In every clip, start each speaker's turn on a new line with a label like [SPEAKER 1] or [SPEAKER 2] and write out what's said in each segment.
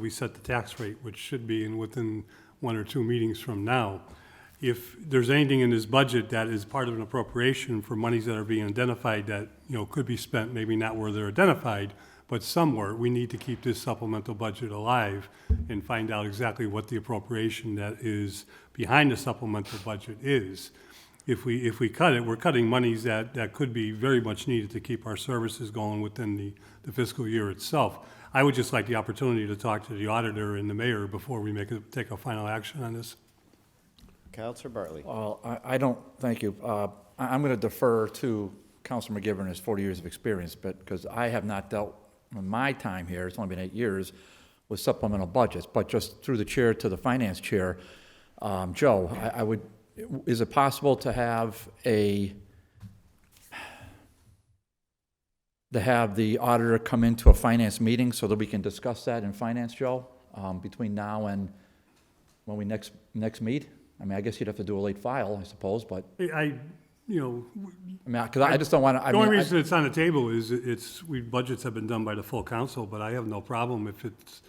[SPEAKER 1] we set the tax rate, which should be in within one or two meetings from now. If there's anything in this budget that is part of an appropriation for monies that are being identified that, you know, could be spent, maybe not where they're identified, but somewhere, we need to keep this supplemental budget alive and find out exactly what the appropriation that is behind the supplemental budget is. If we, if we cut it, we're cutting monies that, that could be very much needed to keep our services going within the the fiscal year itself. I would just like the opportunity to talk to the auditor and the mayor before we make, a- take a final action on this.
[SPEAKER 2] Counselor Bartley.
[SPEAKER 3] Well, Uh, I, I don't, thank you. Uh, I, I'm going to defer to Council McGivern, his 40 years of experience, but, because I have not dealt, in my time here, it's only been eight years, with supplemental budgets, but just through the chair to the finance chair, um, Joe, I, I would, is it possible to have a, to have the auditor come into a finance meeting so that we can discuss that in finance, Joe, um, between now and when we next, next meet? I mean, I guess you'd have to do a late file, I suppose, but,
[SPEAKER 1] I- I, you know,
[SPEAKER 3] I mean, because I just don't want to, I
[SPEAKER 1] the only
[SPEAKER 3] mean,
[SPEAKER 1] reason
[SPEAKER 3] I-
[SPEAKER 1] it's on the table is it- it's, we, budgets have been done by the full council, but I have no problem if it's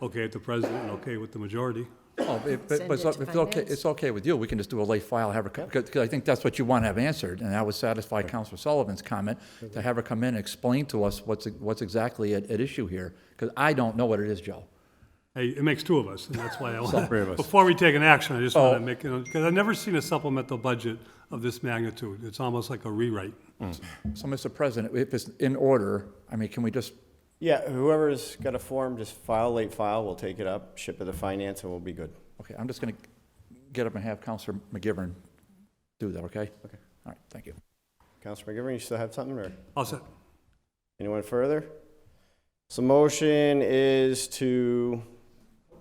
[SPEAKER 1] okay with the president and okay with the majority.
[SPEAKER 3] oh, if- but,
[SPEAKER 4] Send
[SPEAKER 3] but
[SPEAKER 4] it
[SPEAKER 3] it's
[SPEAKER 4] to
[SPEAKER 3] if it's okay,
[SPEAKER 4] finance.
[SPEAKER 3] it's okay with you, we can just do a late file, have her, because, I think that's what you want to have answered, and that would satisfy Counselor Sullivan's comment, to have her come in and explain to us what's, what's exactly at, at issue here, because I don't know what it is, Joe.
[SPEAKER 1] Hey, it makes two of us, and that's why I want.
[SPEAKER 2] three of us.
[SPEAKER 1] Before we take an action, I just want to
[SPEAKER 3] Oh.
[SPEAKER 1] make, because I've never seen a supplemental budget of this magnitude. It's almost like a rewrite.
[SPEAKER 3] So, Mr. President, if it's in order, I mean, can we just,
[SPEAKER 2] Yeah, whoever's got a form, just file late file, we'll take it up, ship it to finance, and we'll be good.
[SPEAKER 3] okay, I'm just going to get up and have Counselor McGivern do that, okay?
[SPEAKER 2] Okay.
[SPEAKER 3] All right, thank you.
[SPEAKER 2] Counselor McGivern, you still have something, or
[SPEAKER 1] All set.
[SPEAKER 2] anyone further? So motion is to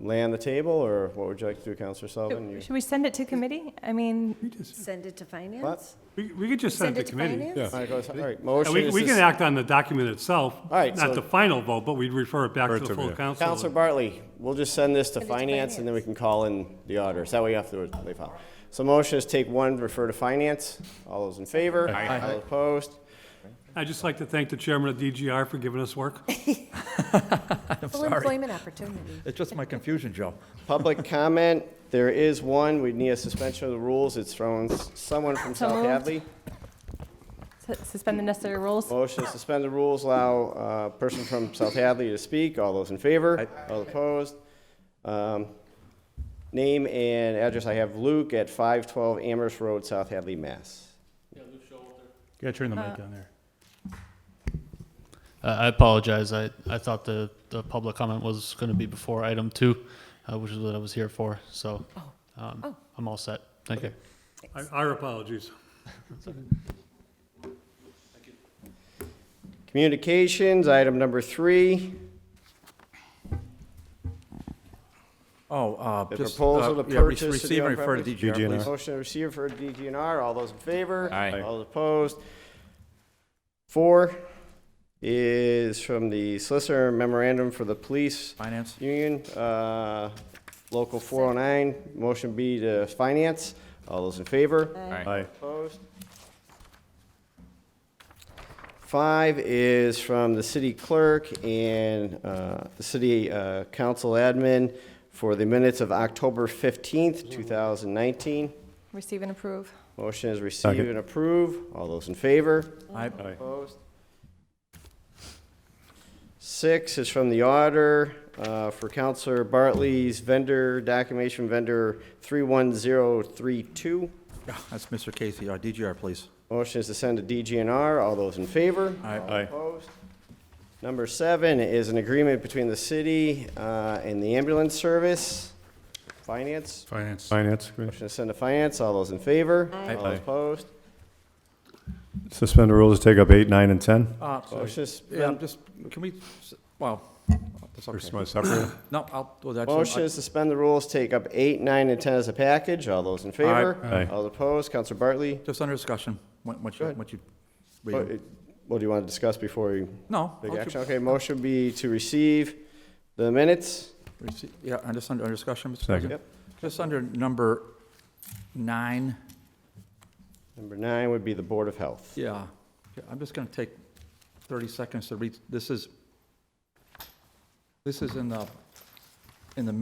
[SPEAKER 2] lay on the table, or what would you like to do, Counselor Sullivan? You-
[SPEAKER 5] Should we send it to committee? I mean,
[SPEAKER 1] We just-
[SPEAKER 4] Send it to finance?
[SPEAKER 1] We, we could just send it to committee.
[SPEAKER 4] finance?
[SPEAKER 2] All right, go- all right,
[SPEAKER 1] Yeah,
[SPEAKER 2] motion
[SPEAKER 1] we,
[SPEAKER 2] is
[SPEAKER 1] we can
[SPEAKER 2] to...
[SPEAKER 1] act on the document itself,
[SPEAKER 2] right,
[SPEAKER 1] not
[SPEAKER 2] so-
[SPEAKER 1] the final vote, but we'd refer it back to the full council.
[SPEAKER 2] Counselor Bartley, we'll just send this to
[SPEAKER 4] Send it to
[SPEAKER 2] finance, and then we
[SPEAKER 4] finance.
[SPEAKER 2] can call in the auditors. That way you have to do it late file. So motion is take one, refer to finance. All those in favor? Aye. All opposed?
[SPEAKER 1] I'd just like to thank the chairman of DGR for giving us work.
[SPEAKER 4] Full employment opportunity.
[SPEAKER 3] It's just my confusion, Joe.
[SPEAKER 2] Public comment, there is one, we need a suspension of the rules, it's from someone from
[SPEAKER 5] So
[SPEAKER 2] South
[SPEAKER 5] moved.
[SPEAKER 2] Hadley.
[SPEAKER 5] s- suspend the necessary rules?
[SPEAKER 2] Motion to suspend the rules, allow a person from South Hadley to speak, all those in favor, all opposed. Um, Name and address, I have Luke at 512 Amherst Road, South Hadley, Mass.
[SPEAKER 6] Yeah, turn the mic down there. Uh, I apologize. I, I thought the, the public comment was going to be before item two, uh, which is what I was here for. So um, I'm all set. Thank you.
[SPEAKER 1] Our- Our apologies.
[SPEAKER 2] Communications, item number three,
[SPEAKER 3] Oh, uh,
[SPEAKER 2] the
[SPEAKER 3] just.
[SPEAKER 2] proposal
[SPEAKER 3] uh,
[SPEAKER 2] to
[SPEAKER 3] yeah, re-
[SPEAKER 2] purchase. of the
[SPEAKER 3] Receive and refer to
[SPEAKER 2] on-premise-
[SPEAKER 3] DGR, please.
[SPEAKER 2] Motion to receive and refer to DGNR, all those in favor?
[SPEAKER 7] Aye.
[SPEAKER 2] All opposed? Four is from the solicitor memorandum for the police
[SPEAKER 3] Finance?
[SPEAKER 2] union, uh, local 409, motion B to finance, all those in favor?
[SPEAKER 7] Aye.
[SPEAKER 2] Opposed? Five is from the city clerk and uh, the city uh, council admin for the minutes of October 15th, 2019.
[SPEAKER 5] Receive and approve.
[SPEAKER 2] Motion is receive and approve. All those in favor?
[SPEAKER 3] Aye.
[SPEAKER 2] Opposed? Six is from the auditor uh, for Counselor Bartley's vendor, documentation vendor 31032.
[SPEAKER 3] That's Mr. Casey, uh, DGR, please.
[SPEAKER 2] Motion is to send to DGNR. All those in favor?
[SPEAKER 3] Aye.
[SPEAKER 2] All
[SPEAKER 7] Aye.
[SPEAKER 2] Opposed? Number seven is an agreement between the city uh, and the ambulance service. Finance?
[SPEAKER 6] Finance.
[SPEAKER 7] Finance, Committee.
[SPEAKER 2] Motion to send to finance. All those in favor?
[SPEAKER 4] Aye.
[SPEAKER 2] All opposed?
[SPEAKER 7] suspend the rules, take up eight, nine, and 10.
[SPEAKER 3] Uh, sorry.
[SPEAKER 2] Motion is
[SPEAKER 3] Yeah, I'm just, can we, s- well, that's
[SPEAKER 7] First,
[SPEAKER 3] okay.
[SPEAKER 7] my separate.
[SPEAKER 3] No, I'll, do that.
[SPEAKER 2] Motion is suspend the rules, take up eight, nine, and 10 as a package. All those in favor?
[SPEAKER 7] Aye. Aye.
[SPEAKER 2] All opposed? Counselor Bartley?
[SPEAKER 3] Just under discussion, What- what
[SPEAKER 2] Go
[SPEAKER 3] you,
[SPEAKER 2] ahead.
[SPEAKER 3] what you, read
[SPEAKER 2] What
[SPEAKER 3] it.
[SPEAKER 2] what do you want to discuss before we
[SPEAKER 3] no.
[SPEAKER 2] take
[SPEAKER 3] I'll ju-
[SPEAKER 2] action? Okay, motion would be to receive the minutes.
[SPEAKER 3] rece- Yeah, I'm just under, under discussion, Mr.
[SPEAKER 7] Second.
[SPEAKER 3] President. Just under number nine,
[SPEAKER 2] Number nine would be the Board of Health.
[SPEAKER 3] yeah, Yeah, I'm just gonna take thirty seconds to read, this is, this is in the in the